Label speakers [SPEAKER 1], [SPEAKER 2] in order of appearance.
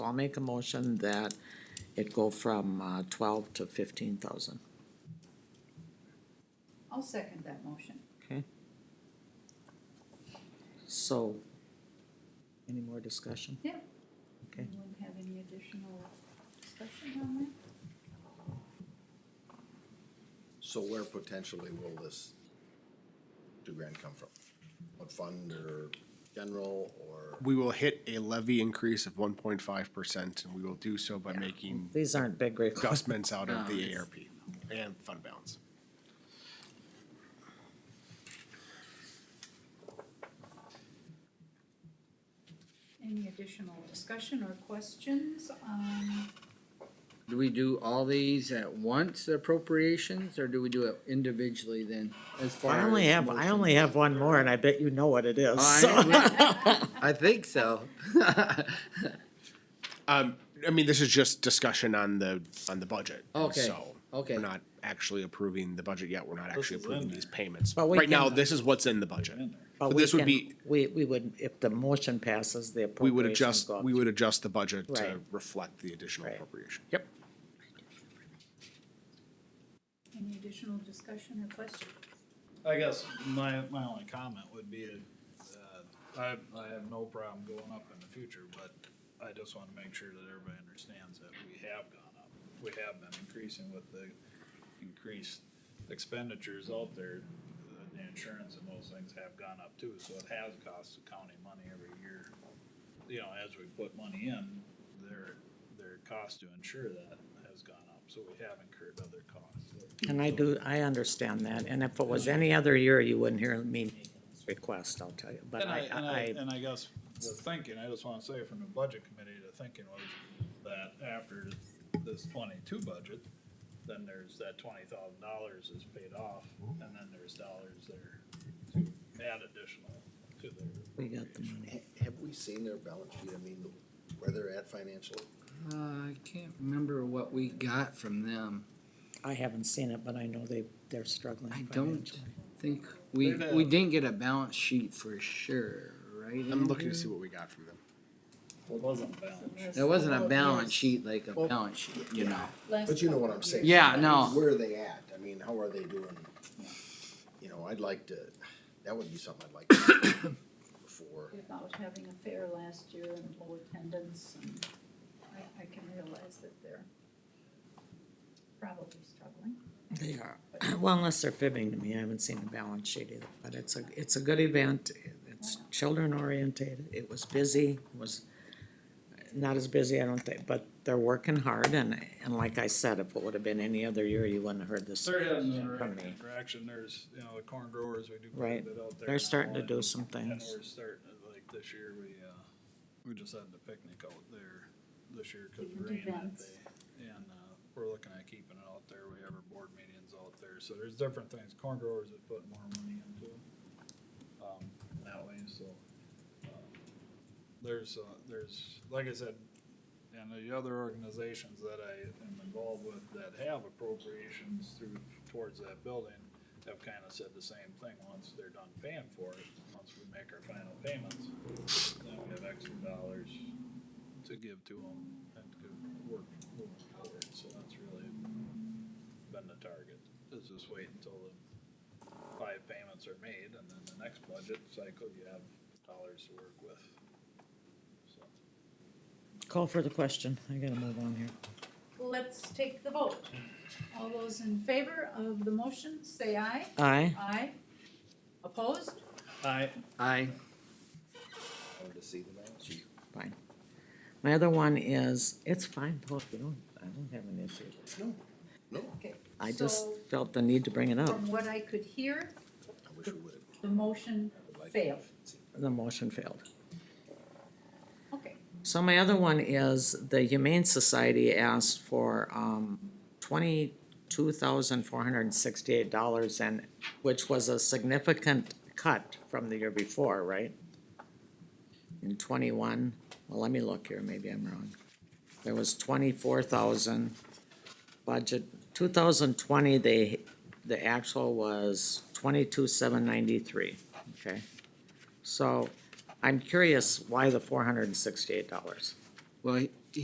[SPEAKER 1] I'll make a motion that it go from, uh, twelve to fifteen thousand.
[SPEAKER 2] I'll second that motion.
[SPEAKER 1] Okay. So, any more discussion?
[SPEAKER 2] Yeah.
[SPEAKER 1] Okay.
[SPEAKER 2] Anyone have any additional discussion on that?
[SPEAKER 3] So where potentially will this two grand come from? What fund or general or?
[SPEAKER 4] We will hit a levy increase of one point five percent, and we will do so by making
[SPEAKER 1] These aren't big requests.
[SPEAKER 4] adjustments out of the ARP and fund balance.
[SPEAKER 2] Any additional discussion or questions um, on,
[SPEAKER 5] Do we do all these at once appropriations, or do we do it individually then? As far
[SPEAKER 1] I only
[SPEAKER 5] as
[SPEAKER 1] have, I
[SPEAKER 5] motion?
[SPEAKER 1] only have one more and I bet you know what it is. so.
[SPEAKER 5] I I think so. Uh,
[SPEAKER 4] Um, I mean, this is just discussion on the, on the budget.
[SPEAKER 5] Okay,
[SPEAKER 4] So,
[SPEAKER 5] okay.
[SPEAKER 4] We're not actually approving the budget yet. We're not actually
[SPEAKER 6] is
[SPEAKER 4] approving
[SPEAKER 6] in
[SPEAKER 4] these payments.
[SPEAKER 1] But we
[SPEAKER 4] Right now,
[SPEAKER 1] can-
[SPEAKER 4] this is what's in the budget.
[SPEAKER 1] But
[SPEAKER 4] But
[SPEAKER 1] we
[SPEAKER 4] this would
[SPEAKER 1] can-
[SPEAKER 4] be-
[SPEAKER 1] We, we would, if the motion passes, the
[SPEAKER 4] We would
[SPEAKER 1] appropriations
[SPEAKER 4] adjust,
[SPEAKER 1] go up.
[SPEAKER 4] we would adjust the budget
[SPEAKER 1] Right.
[SPEAKER 4] to reflect the additional
[SPEAKER 1] Right.
[SPEAKER 4] appropriation. Yep.
[SPEAKER 2] any additional discussion or question?
[SPEAKER 6] I guess my, my only comment would be, uh, I, I have no problem going up in the future, but I just wanna make sure that everybody understands that we have gone up. We have been increasing with the increased expenditures out there, the- the insurance and those things have gone up too, so it has cost the county money every year. You know, as we put money in, their, their cost to insure that has gone up, so we have incurred other costs.
[SPEAKER 1] And I do, I understand that, and if it was any other year, you wouldn't hear me making this request, I'll tell you, but
[SPEAKER 6] And I,
[SPEAKER 1] I,
[SPEAKER 6] and I,
[SPEAKER 1] I,
[SPEAKER 6] and I guess the thinking, I just wanna say from the budget committee, the thinking was that after this twenty-two budget, then there's that twenty thousand dollars is paid off, and then there's dollars there to add additional to their.
[SPEAKER 1] we got the money.
[SPEAKER 3] Ha- Have we seen their balance sheet? I mean, where they're at financially?
[SPEAKER 5] Uh, I can't remember what we got from them.
[SPEAKER 1] I haven't seen it, but I know they, they're struggling
[SPEAKER 5] I don't
[SPEAKER 1] financially.
[SPEAKER 5] think, we,
[SPEAKER 6] They've, uh,
[SPEAKER 5] we didn't get a balance sheet for sure, right?
[SPEAKER 4] I'm looking to see what we got from them.
[SPEAKER 6] It wasn't balanced.
[SPEAKER 5] It wasn't a balance
[SPEAKER 2] Oh, Yes.
[SPEAKER 5] sheet, like a balance sheet, you know?
[SPEAKER 2] Last
[SPEAKER 3] But you know
[SPEAKER 2] couple
[SPEAKER 3] what I'm
[SPEAKER 2] of
[SPEAKER 3] saying.
[SPEAKER 2] years.
[SPEAKER 5] Yeah, no.
[SPEAKER 3] Where are they at? I mean, how are they doing? You know, I'd like to, that would be something I'd like to see before.
[SPEAKER 2] About having a fair last year and low attendance, and I, I can realize that they're probably struggling.
[SPEAKER 1] They are, well, unless they're fibbing to me, I haven't seen the balance sheet either, but it's a, it's a good event, it's children oriented, it was busy, it was not as busy, I don't think, but they're working hard, and, and like I said, if it would have been any other year, you wouldn't have heard this.
[SPEAKER 6] They're heading in the
[SPEAKER 1] from
[SPEAKER 6] right
[SPEAKER 1] me.
[SPEAKER 6] direction, there's, you know, the corn growers, we do quite a
[SPEAKER 1] Right.
[SPEAKER 6] bit out there.
[SPEAKER 1] They're
[SPEAKER 6] now,
[SPEAKER 1] starting to
[SPEAKER 6] and-
[SPEAKER 1] do some
[SPEAKER 6] And
[SPEAKER 1] things.
[SPEAKER 6] we're starting, to, like, this year, we, uh, we just had the picnic out there this year, cause of
[SPEAKER 2] Different
[SPEAKER 6] rain that
[SPEAKER 2] events.
[SPEAKER 6] day. And, uh, we're looking at keeping it out there, we have our board meetings out there, so there's different things, corn growers have put more money into them. Um, that way, so, um, there's, uh, there's, like I said, and the other organizations that I am involved with that have appropriations through, towards that building have kind of said the same thing, once they're done paying for it, once we make our final payments, then we have extra dollars to give to them and to work moving forward, so that's really been the target, is just wait until the five payments are made, and then the next budget cycle, you have dollars to work with, so.
[SPEAKER 1] Call for the question, I gotta move on here.
[SPEAKER 2] Let's take the vote. All those in favor of the motion, say aye.
[SPEAKER 1] Aye,
[SPEAKER 2] Aye. Opposed?
[SPEAKER 6] I,
[SPEAKER 5] I,
[SPEAKER 3] I would to see the balance sheet.
[SPEAKER 1] fine. My other one is, it's fine, Paul, you don't, I don't have an issue.
[SPEAKER 3] No, no,
[SPEAKER 2] Okay.
[SPEAKER 1] I just
[SPEAKER 2] So,
[SPEAKER 1] felt the need to bring it up,
[SPEAKER 2] From what I could hear,
[SPEAKER 3] I wish we would have.
[SPEAKER 2] the motion failed.
[SPEAKER 1] the motion failed.
[SPEAKER 2] Okay.
[SPEAKER 1] So my other one is the Humane Society asked for, um, twenty-two thousand four hundred and sixty-eight dollars and, which was a significant cut from the year before, right? In twenty-one, well, let me look here, maybe I'm wrong. There was twenty-four thousand budget, two thousand twenty, they, the actual was twenty-two seven ninety-three, okay? So I'm curious why the four hundred and sixty-eight dollars.
[SPEAKER 5] well,